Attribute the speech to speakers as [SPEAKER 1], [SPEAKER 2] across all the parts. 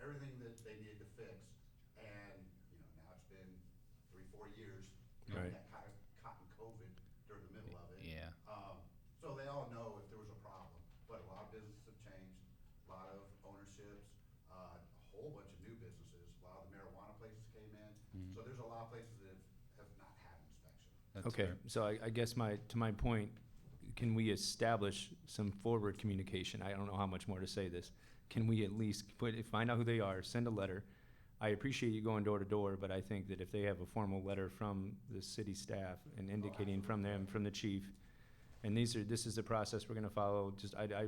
[SPEAKER 1] everything that they needed to fix. And, you know, now it's been three, four years. We
[SPEAKER 2] Right.
[SPEAKER 1] got caught, caught in COVID during the middle of it.
[SPEAKER 2] Yeah.
[SPEAKER 1] Um, so they all know if there was a problem, but a lot of businesses have changed, a lot of ownerships, uh, a whole bunch of new businesses, a lot of the marijuana places came
[SPEAKER 2] Mm-hmm.
[SPEAKER 1] in. So there's a lot of places that have, have not had inspection.
[SPEAKER 2] That's
[SPEAKER 3] Okay,
[SPEAKER 2] fair.
[SPEAKER 3] so I, I guess my, to my point, can we establish some forward communication? I don't know how much more to say this. Can we at least put, find out who they are, send a letter? I appreciate you going door to door, but I think that if they have a formal letter from the city staff and indicating from them, from the chief, and these are, this is the process we're gonna follow, just, I, I,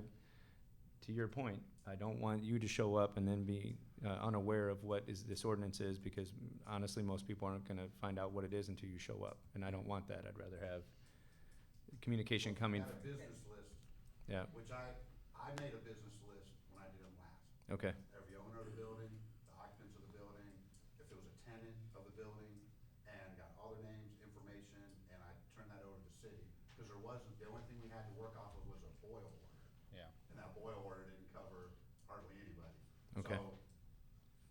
[SPEAKER 3] to your point, I don't want you to show up and then be uh, unaware of what is, this ordinance is, because honestly, most people aren't gonna find out what it is until you show up, and I don't want that, I'd rather have communication coming,
[SPEAKER 1] Got a business list
[SPEAKER 3] yeah,
[SPEAKER 1] Which I, I made a business list when I did them last.
[SPEAKER 3] okay,
[SPEAKER 1] Every owner of the building, the occupants of the building, if there was a tenant of the building, and got all their names, information, and I turned that over to the city. Because there wasn't, the only thing we had to work off of was a FOIL order,
[SPEAKER 2] Yeah.
[SPEAKER 1] and that FOIL order didn't cover hardly anybody.
[SPEAKER 3] Okay.
[SPEAKER 1] So,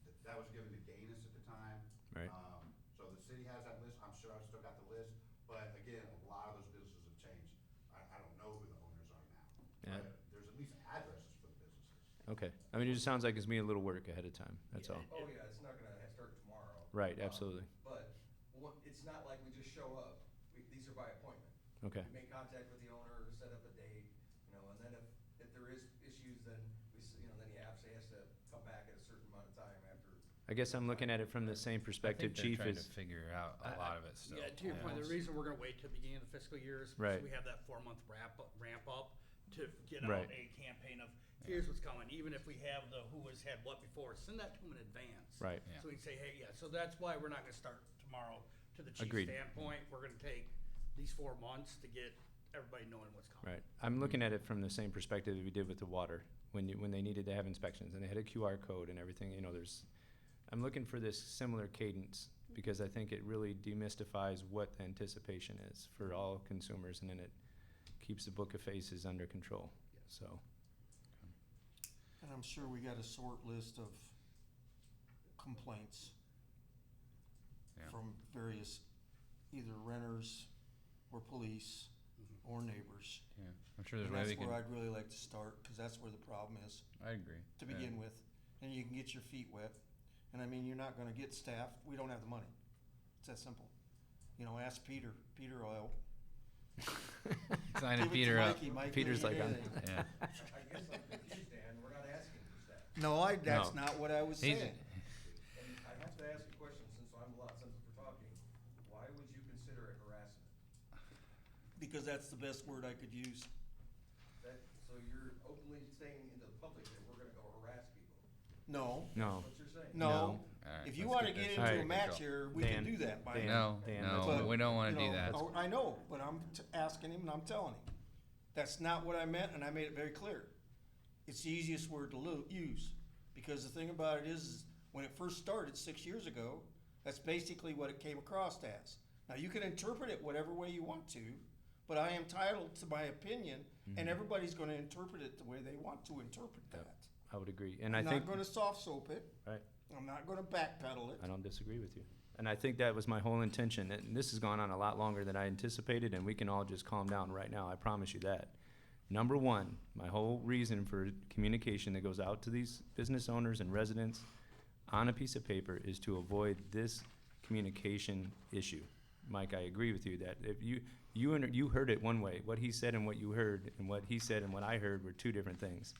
[SPEAKER 1] th- That was given to Gaines at the time.
[SPEAKER 3] Right.
[SPEAKER 1] Um, So the city has that list, I'm sure I've still got the list, but again, a lot of those businesses have changed. I, I don't know who the owners are now.
[SPEAKER 3] Yeah.
[SPEAKER 1] But There's at least addresses for the businesses.
[SPEAKER 3] okay. I mean, it just sounds like it's me a little work ahead of time, that's all.
[SPEAKER 4] Oh, yeah, it's not gonna ha- start tomorrow.
[SPEAKER 3] Right,
[SPEAKER 4] Um,
[SPEAKER 3] absolutely.
[SPEAKER 4] But, what- it's not like we just show up, we, these are by appointment.
[SPEAKER 3] Okay.
[SPEAKER 4] We make contact with the owner, set up a date, you know, and then if, if there is issues, then we, s- you know, then he obviously has to come back at a certain amount of time after.
[SPEAKER 3] I guess I'm looking at it from the same perspective,
[SPEAKER 2] I think they're
[SPEAKER 3] chief
[SPEAKER 2] trying
[SPEAKER 3] is,
[SPEAKER 2] to figure out a lot of it still.
[SPEAKER 5] Yeah, to your point, the reason we're gonna wait till the beginning of the fiscal year is because
[SPEAKER 3] Right.
[SPEAKER 5] we have that four-month ramp, up- ramp up to get
[SPEAKER 3] Right.
[SPEAKER 5] out a campaign of, here's what's coming, even if we have the who has had what before, send that to them in advance.
[SPEAKER 3] Right.
[SPEAKER 2] Yeah.
[SPEAKER 5] So we can say, hey, yeah, so that's why we're not gonna start tomorrow. To the chief's
[SPEAKER 3] Agreed.
[SPEAKER 5] standpoint, we're gonna take these four months to get everybody knowing what's coming.
[SPEAKER 3] Right.
[SPEAKER 6] Mm-hmm.
[SPEAKER 3] I'm looking at it from the same perspective that we did with the water, when you, when they needed to have inspections and they had a QR code and everything, you know, there's, I'm looking for this similar cadence because I think it really demystifies what the anticipation is for
[SPEAKER 6] Mm-hmm.
[SPEAKER 3] all consumers and then it keeps the book of faces under control. So,
[SPEAKER 6] And I'm sure we got a short list of complaints
[SPEAKER 2] Yeah.
[SPEAKER 6] from various, either renters or police or neighbors.
[SPEAKER 2] Yeah. I'm sure there's
[SPEAKER 6] And
[SPEAKER 2] way we
[SPEAKER 6] that's
[SPEAKER 2] can.
[SPEAKER 6] where I'd really like to start, because that's where the problem is
[SPEAKER 2] I agree.
[SPEAKER 6] to begin with. And you can get your feet wet. And I mean, you're not gonna get staff. We don't have the money. It's that simple. You know, ask Peter. Peter will help.
[SPEAKER 2] with. Signing
[SPEAKER 6] Give it to
[SPEAKER 2] Peter uh, up.
[SPEAKER 6] Mikey. Mikey
[SPEAKER 3] Peter's
[SPEAKER 6] will
[SPEAKER 3] like,
[SPEAKER 6] do
[SPEAKER 3] I'm-
[SPEAKER 6] anything.
[SPEAKER 2] Yeah.
[SPEAKER 4] I I guess I'm confused, Dan, we're not asking for that.
[SPEAKER 6] No, I, that's
[SPEAKER 3] No.
[SPEAKER 6] not what I was
[SPEAKER 2] He's-
[SPEAKER 6] saying.
[SPEAKER 4] And I have to ask a question, since I'm a lot, since we're talking, why would you consider it harassment?
[SPEAKER 6] Because that's the best word I could use.
[SPEAKER 4] That, so you're openly saying into the public that we're gonna go harass people,
[SPEAKER 6] No,
[SPEAKER 4] that's
[SPEAKER 3] no.
[SPEAKER 4] what you're saying?
[SPEAKER 6] no.
[SPEAKER 2] No. All right,
[SPEAKER 6] If you
[SPEAKER 2] let's
[SPEAKER 6] want to
[SPEAKER 2] get
[SPEAKER 6] get
[SPEAKER 2] this
[SPEAKER 6] into
[SPEAKER 3] under
[SPEAKER 6] a match
[SPEAKER 2] control.
[SPEAKER 6] here, we
[SPEAKER 3] Dan,
[SPEAKER 6] can do that. By
[SPEAKER 3] Dan,
[SPEAKER 2] No,
[SPEAKER 3] Dan,
[SPEAKER 2] no,
[SPEAKER 3] let's-
[SPEAKER 2] we don't want to
[SPEAKER 6] you
[SPEAKER 2] do
[SPEAKER 6] know,
[SPEAKER 2] that.
[SPEAKER 6] I know, but I'm t- asking him, and I'm telling him. That's not what I meant, and I made it very clear. It's the easiest word to lo- use, because the thing about it is, is when it first started six years ago, that's basically what it came across as. Now you can interpret it whatever way you want to, but I am entitled to my opinion, and everybody's going to interpret it the way they want to interpret that.
[SPEAKER 3] I would agree. And I
[SPEAKER 6] I'm
[SPEAKER 3] think,
[SPEAKER 6] not going to soft soap it.
[SPEAKER 3] right.
[SPEAKER 6] I'm not going to backpedal it.
[SPEAKER 3] I don't disagree with you. And I think that was my whole intention. And this has gone on a lot longer than I anticipated, and we can all just calm down right now. I promise you that. Number one, my whole reason for communication that goes out to these business owners and residents on a piece of paper is to avoid this communication issue. Mike, I agree with you that if you, you, and you heard it one way, what he said and what you heard, and what he said and what I heard were two different things.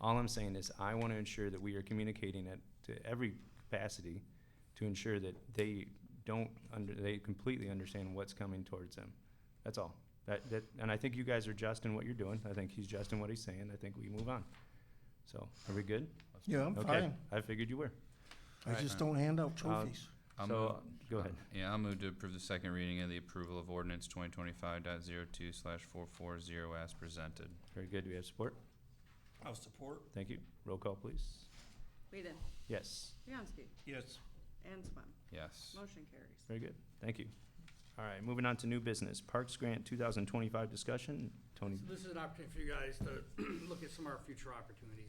[SPEAKER 3] All I'm saying is I want to ensure that we are communicating it to every capacity to ensure that they don't under, they completely understand what's coming towards them. That's all. That, that, and I think you guys are just in what you're doing. I think he's just in what he's saying. I think we move on. So, are we good?
[SPEAKER 6] Yeah, I'm
[SPEAKER 3] Okay, I figured you were.
[SPEAKER 6] I just don't hand out trophies.
[SPEAKER 2] I'll
[SPEAKER 3] So, go ahead.
[SPEAKER 2] Yeah, I'll move to approve the second reading of the approval of ordinance 2025.02 slash 440 as presented.
[SPEAKER 3] Very good. Do we have support?
[SPEAKER 6] I'll support.
[SPEAKER 3] Thank you. Roll call, please.
[SPEAKER 7] Whedon,
[SPEAKER 3] Yes.
[SPEAKER 7] Bianski,
[SPEAKER 6] Yes.
[SPEAKER 7] and Swam.
[SPEAKER 2] Yes.
[SPEAKER 7] Motion carries.
[SPEAKER 3] Very good. Thank you. All right, moving on to new business. Parks Grant 2025 discussion. Tony.
[SPEAKER 5] So this is an opportunity for you guys to look at some of our future opportunities.